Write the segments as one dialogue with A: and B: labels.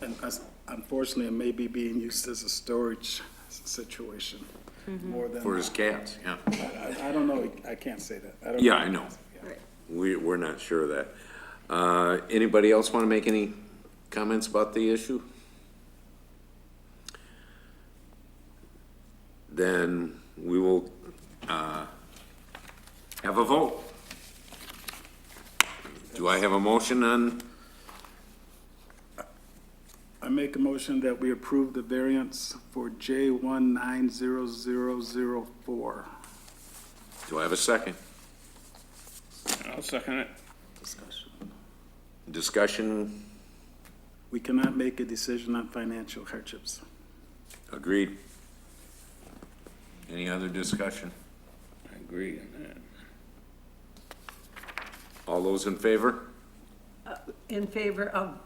A: and us- unfortunately, it may be being used as a storage s- situation
B: Mm-hmm.
A: more than.
C: For his cats, yeah.
A: I, I don't know, I can't say that. I don't
C: Yeah, I know.
A: Yeah.
C: We, we're not sure of that. Uh, Anybody else want to make any comments about the issue? Then we will uh, have a vote. Do I have a motion on,
A: I make a motion that we approve the variance for J one nine zero zero zero four.
C: do I have a second?
D: I'll second it.
C: Discussion,
A: We cannot make a decision on financial hardships.
C: agreed. Any other discussion?
D: I agree on that.
C: All those in favor?
E: in favor of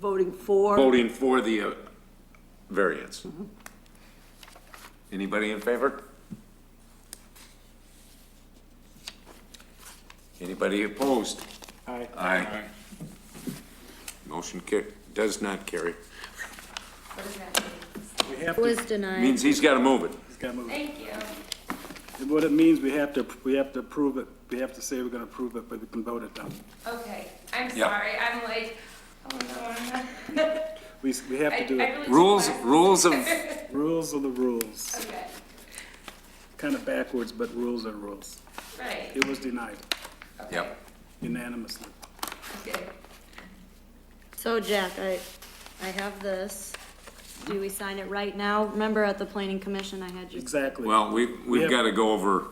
E: voting for.
C: Voting for the uh, variance. Anybody in favor? Anybody opposed?
A: Aye.
C: Aye. Motion ca, does not carry.
A: We have to,
F: Was denied.
C: Means he's got to move it.
A: it's gotta move.
F: Thank you.
A: And What it means, we have to, we have to approve it. We have to say we're gonna approve it, but we can vote it down.
B: Okay, I'm
C: Yeah.
B: sorry, I'm like, oh no, I'm not.
A: We, s- we have
B: I-
A: to do
B: I
A: it.
B: really took
C: Rules,
B: my-
C: rules of,
A: Rules are the rules.
B: Okay,
A: Kind of backwards, but rules are rules.
B: right,
A: It was denied
C: yep.
A: unanimously.
B: okay.
F: So Jack, I, I have this. Do we sign it right now? Remember at the planning commission, I had you,
A: Exactly.
C: Well, we, we've
A: have-
C: got to go over,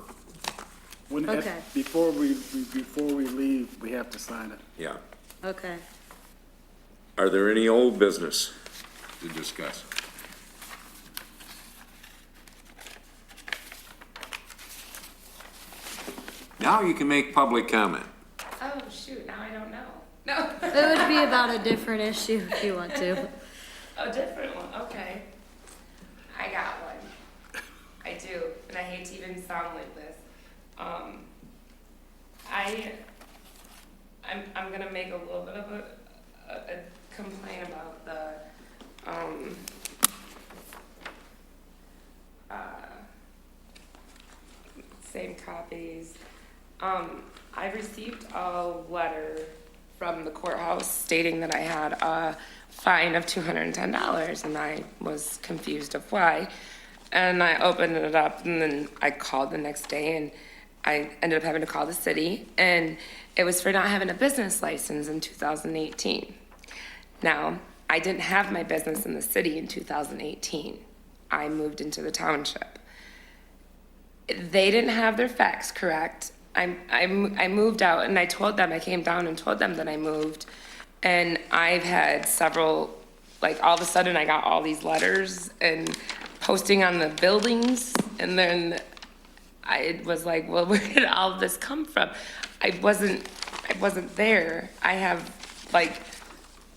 A: When- at-
F: okay.
A: Before we, we- before we leave, we have to sign it.
C: yeah.
F: okay.
C: Are there any old business to discuss? Now you can make public comment.
B: Oh, shoot, now I don't know. No,
F: It would be about a different issue if you want to.
B: a oh, different one, okay. I got one. I do, and I hate to even sound like this. Um, I, I'm, I'm gonna make a little bit of a, a a complaint about the, um, uh, same copies. Um, I received a letter from the courthouse stating that I had a fine of two hundred and ten dollars, and I was confused of why. And I opened it up, and then I called the next day, and I ended up having to call the city, and it was for not having a business license in two thousand eighteen. Now, I didn't have my business in the city in two thousand eighteen. I moved into the township they didn't have their facts correct. I, I, I moved out and I told them, I came down and told them that I moved. And I've had several, like all of a sudden I got all these letters and posting on the buildings. And then I was like, well, where did all this come from? I wasn't, I wasn't there. I have like,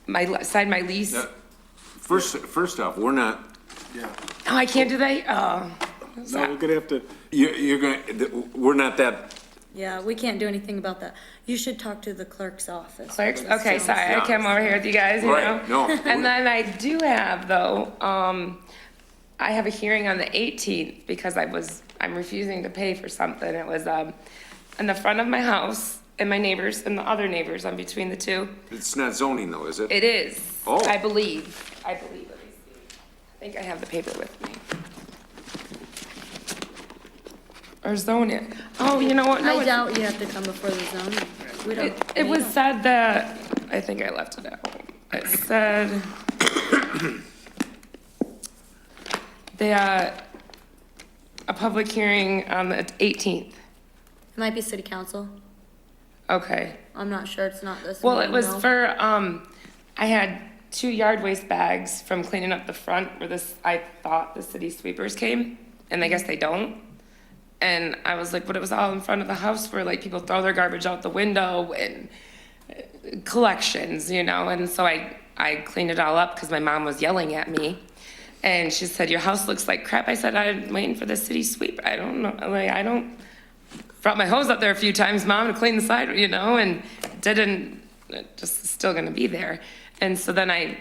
B: my, le- signed my lease.
C: Uh,
B: No,
C: First, first off, we're not,
A: Yeah.
B: I can't do that. Oh.
A: No, we're gonna have to,
C: you're, you're gonna, th- we're not that,
F: Yeah, we can't do anything about that. You should talk to the clerk's office.
B: Clerks? Okay, sorry, I
C: Yeah.
B: came over here with you guys, you know?
C: Right, no.
B: And then I do have, though, um, I have a hearing on the 18th because I was, I'm refusing to pay for something. It was, um, in the front of my house and my neighbors and the other neighbors, I'm between the two.
C: it's not zoning though, is it?
B: It is.
C: Oh.
B: I believe, I believe, let me see. I think I have the paper with me. Or zone it. Oh, you know what? No,
F: I
B: it's-
F: doubt you have to come before the zoning. We
B: it,
F: don't.
B: it
F: we
B: was
F: don't.
B: said that, I think I left it out. It said that a public hearing on the 18th.
F: It might be city council.
B: Okay.
F: I'm not sure. It's not this.
B: Well, it
F: meeting,
B: was
F: though.
B: for, um, I had two yard waste bags from cleaning up the front where this, I thought the city sweepers came, and I guess they don't. And I was like, but it was all in front of the house where like people throw their garbage out the window and uh, collections, you know? And so I, I cleaned it all up because my mom was yelling at me. And she said, your house looks like crap. I said, I'm waiting for the city sweep. I don't know, like, I don't, brought my hose up there a few times, mom, to clean the side, you know, and didn't, it just is still gonna be there. And so then I